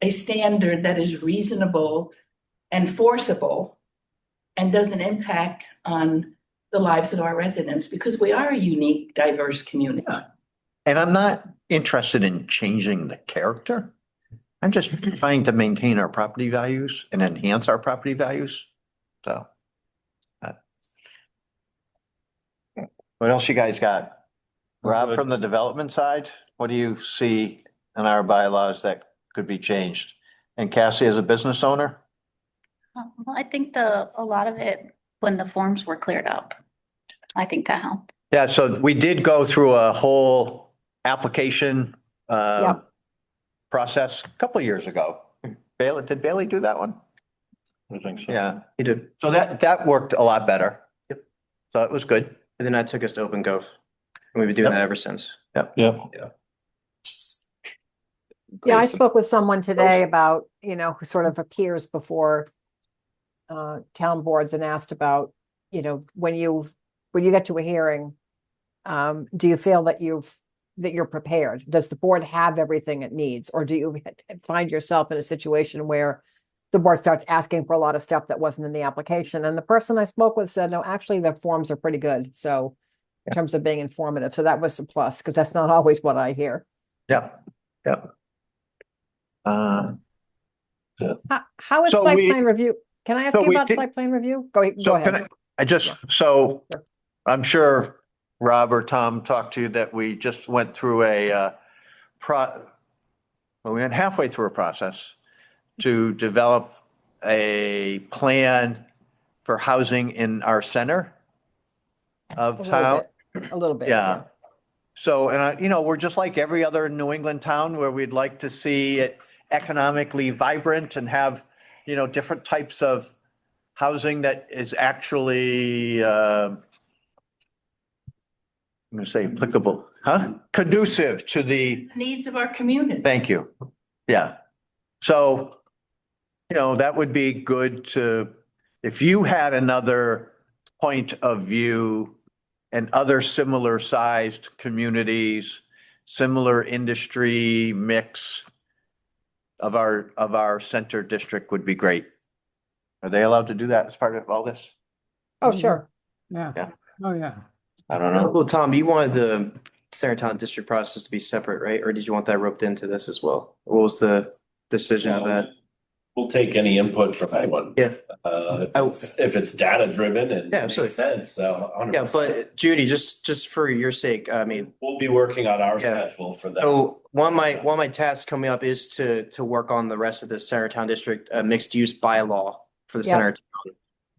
a standard that is reasonable and forceable and doesn't impact on the lives of our residents because we are a unique, diverse community. And I'm not interested in changing the character. I'm just trying to maintain our property values and enhance our property values. So. uh, What else you guys got? Rob, from the development side, what do you see in our bylaws that could be changed? And Cassie as a business owner? Uh, Well, I think the, a lot of it, when the forms were cleared up, I think that helped. Yeah, so we did go through a whole application uh, process a couple of years ago. Bailey, did Bailey do that one? I think so. Yeah, He did. so that, that worked a lot better. Yep. So it was good. And then that took us to Open Gov. And we've been doing Yep. that ever since. Yeah. Yeah, I spoke with someone today about, you know, who sort of appears before uh, town boards and asked about, you know, when you, when you get to a hearing, um, do you feel that you've, that you're prepared? Does the board have everything it needs? Or do you find yourself in a situation where the board starts asking for a lot of stuff that wasn't in the application? And the person I spoke with said, no, actually, the forms are pretty good. So in terms of being informative, so that was a plus, because that's not always what I hear. Yep, yep. Uh, How, how is So site we- plan review? Can I ask so you we about did- site plan review? Go, ahe- go So can I, ahead. I just, so I'm sure Rob or Tom talked to you that we just went through a uh, pro, well, we went halfway through a process to develop a plan for housing in our center A of little town. bit, A little bit. Yeah. So, and I, you know, we're just like every other New England town where we'd like to see it economically vibrant and have, you know, different types of housing that is actually, uh, I'm going to say applicable, huh? Conducive to the, Needs of our community. thank you. Yeah. So, you know, that would be good to, if you had another point of view and other similar sized communities, similar industry mix of our, of our center district would be great. Are they allowed to do that as part of all this? Oh, sure. Yeah. Yeah. Oh, yeah. I don't know. Well, Tom, you wanted the Saratoga district process to be separate, right? Or did you want that roped into this as well? What was the decision of that? We'll take any input from anyone. Yeah. Uh, if I- it's, if it's data driven and Yeah, makes absolutely. sense, so. 100%. Yeah, but Judy, just, just for your sake, I mean, We'll be working on our Yeah. schedule for that. So one of my, one of my tasks coming up is to, to work on the rest of the Centertown District uh, mixed use bylaw for the Yeah. center. of town.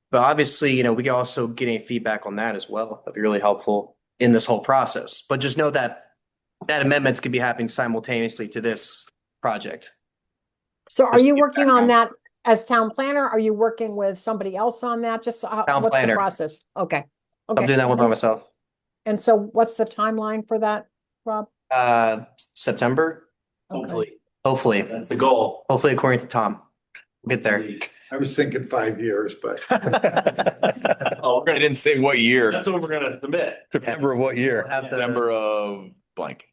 But obviously, you know, we can also get any feedback on that as well. That'd be really helpful in this whole process. But just know that that amendments could be happening simultaneously to this project. So are Just you get working back on on- that as town planner? Are you working with somebody else on that? Just so- how- Town what's the planner. process? Okay. I'm doing Okay. that one by myself. And so what's the timeline for that, Rob? Uh, September, Okay. Hopefully, hopefully, that's the goal. hopefully according to Tom. We'll get there. I was thinking five years, but Oh, we're gonna- I didn't say what year, That's what we're gonna submit. September of what We'll year, have the- September of blank.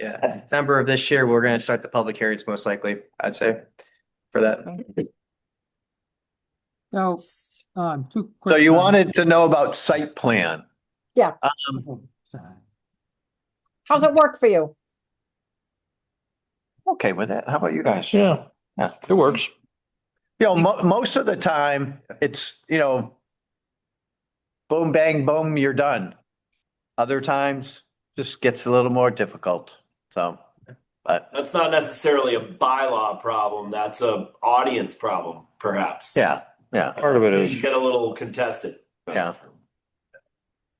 Yeah, September of this year, we're gonna start the public hearings most likely, I'd say, for that. So, um, two. So quick comments. you wanted to know about site plan. Oh, sorry. How's it work for you? Okay with that. How about you guys? Yeah, Yeah. it works. You know, mo- most of the time, it's, you know, boom, bang, boom, you're done. Other times, just gets a little more difficult. So, but That's not necessarily a bylaw problem. That's a audience problem, perhaps. yeah, Part of it Things Get a little contested. yeah.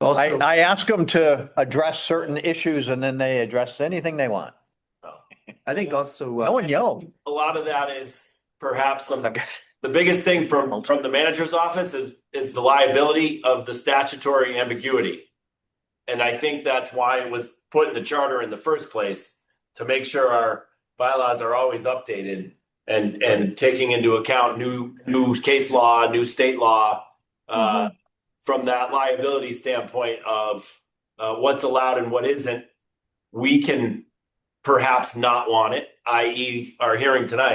I, Also, I ask them to address certain issues and then they address anything they want. I think also. uh, No one yelled. A lot of that is perhaps some I guess. The biggest thing from, from the manager's office is, is the liability of the statutory ambiguity. And I think that's why it was put in the charter in the first place, to make sure our bylaws are always updated and, and taking into account new, new case law, new state law, uh, from that liability standpoint of, uh, what's allowed and what isn't, we can perhaps not want it, i.e. e, our hearing tonight.